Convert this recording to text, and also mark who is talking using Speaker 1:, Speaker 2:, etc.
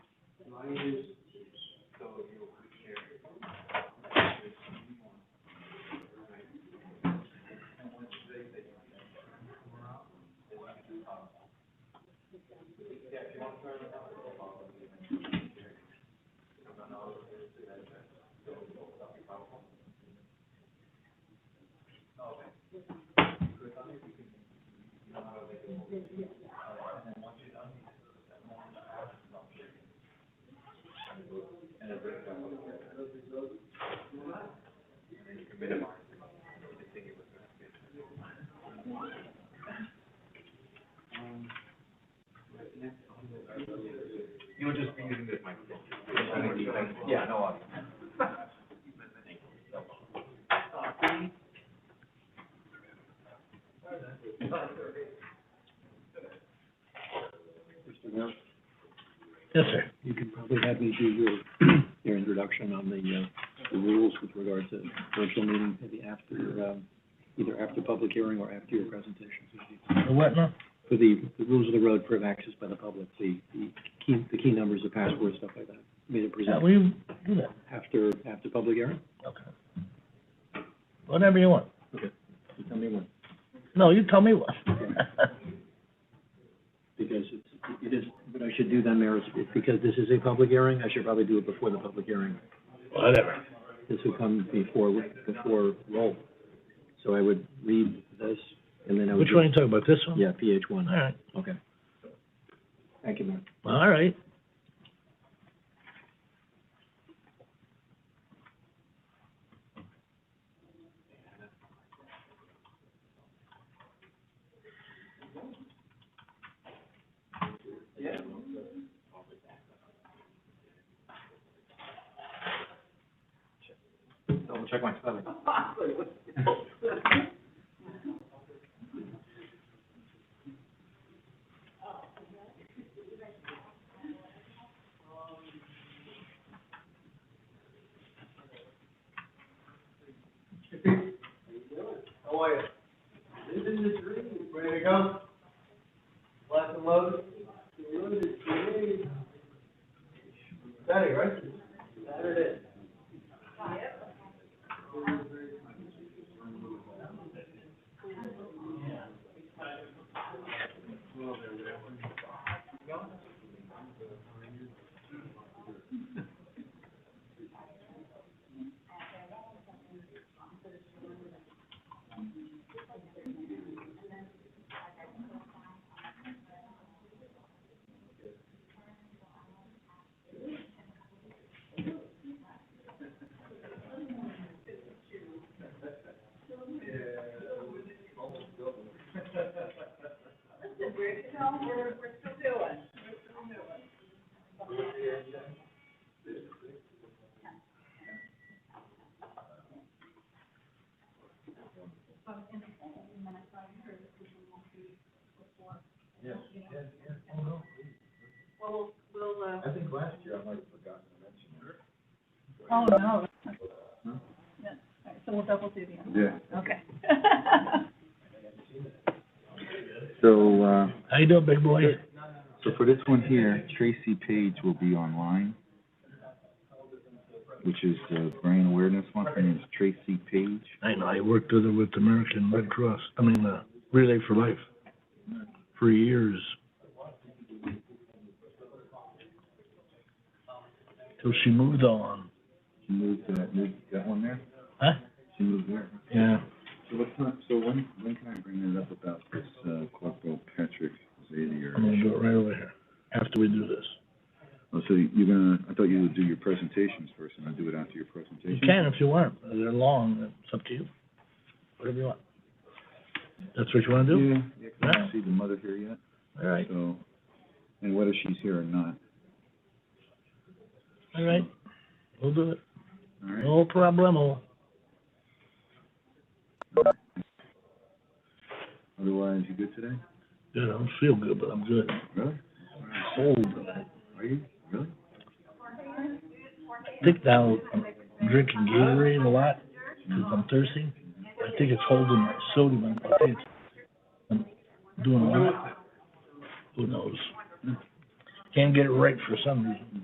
Speaker 1: minus, so you over here.
Speaker 2: You'll just be using this microphone. Yeah, no audio.
Speaker 3: Yes, sir. You could probably have me do your, your introduction on the, uh, the rules with regard to virtual meeting maybe after, um, either after public hearing or after your presentation.
Speaker 4: The what now?
Speaker 3: For the, the rules of the road for access by the public, the, the key, the key numbers, the passwords, stuff like that. Made it
Speaker 4: Yeah,
Speaker 3: present
Speaker 4: we do that.
Speaker 3: after, after public hearing?
Speaker 4: Okay. Whatever you want.
Speaker 3: You Tell me when,
Speaker 4: No, you tell me what.
Speaker 3: because it's, it is, what I should do then, Mayor, is because this is a public hearing, I should probably do it before the public hearing.
Speaker 4: Whatever.
Speaker 3: This would come before, before roll. So I would read this, and then I would.
Speaker 4: Which one you talking about? This one?
Speaker 3: Yeah, PH one.
Speaker 4: All right,
Speaker 3: Okay. Thank you, Mayor.
Speaker 4: all right.
Speaker 2: Double check my spelling.
Speaker 1: How are you? Living the dream. Ready to go? Locked and loaded? Loaded, dream. Saturday, right? Saturday.
Speaker 5: Oh, no. No? All right, So we'll double duty on
Speaker 2: Yeah.
Speaker 5: that, okay.
Speaker 2: So, uh,
Speaker 4: How you doing, big boy?
Speaker 2: so for this one here, Tracy Page will be online, which is the brain awareness one. Her name is Tracy Page.
Speaker 4: I know, I worked with her with American Red Cross, I mean, uh, Relay for Life for years. Till she moved on.
Speaker 2: She moved, uh, moved that one there?
Speaker 4: Huh?
Speaker 2: She moved there.
Speaker 4: Yeah.
Speaker 2: So what time, so when, when can I bring that up about this, uh, Corporal Patrick Zaidi or?
Speaker 4: I'm gonna do it right over here, after we do this.
Speaker 2: Oh, so you're gonna, I thought you would do your presentations first and I'd do it after your presentation?
Speaker 4: You can if you want, they're long, it's up to you, whatever you want. That's what you wanna do?
Speaker 2: Yeah, yeah, 'cause I don't see the mother here yet,
Speaker 4: All right,
Speaker 2: so, and whether she's here or not,
Speaker 4: all right, we'll do it,
Speaker 2: all right?
Speaker 4: no problemo.
Speaker 2: Otherwise, you good today?
Speaker 4: Good, I don't feel good, but I'm good.
Speaker 2: Really?
Speaker 4: Cold,
Speaker 2: Are you? Really?
Speaker 4: I think now I'm drinking Gatorade a lot, because I'm thirsty. I think it's holding my sodium, and I think I'm doing a lot. Who knows? Can't get it right for some reason.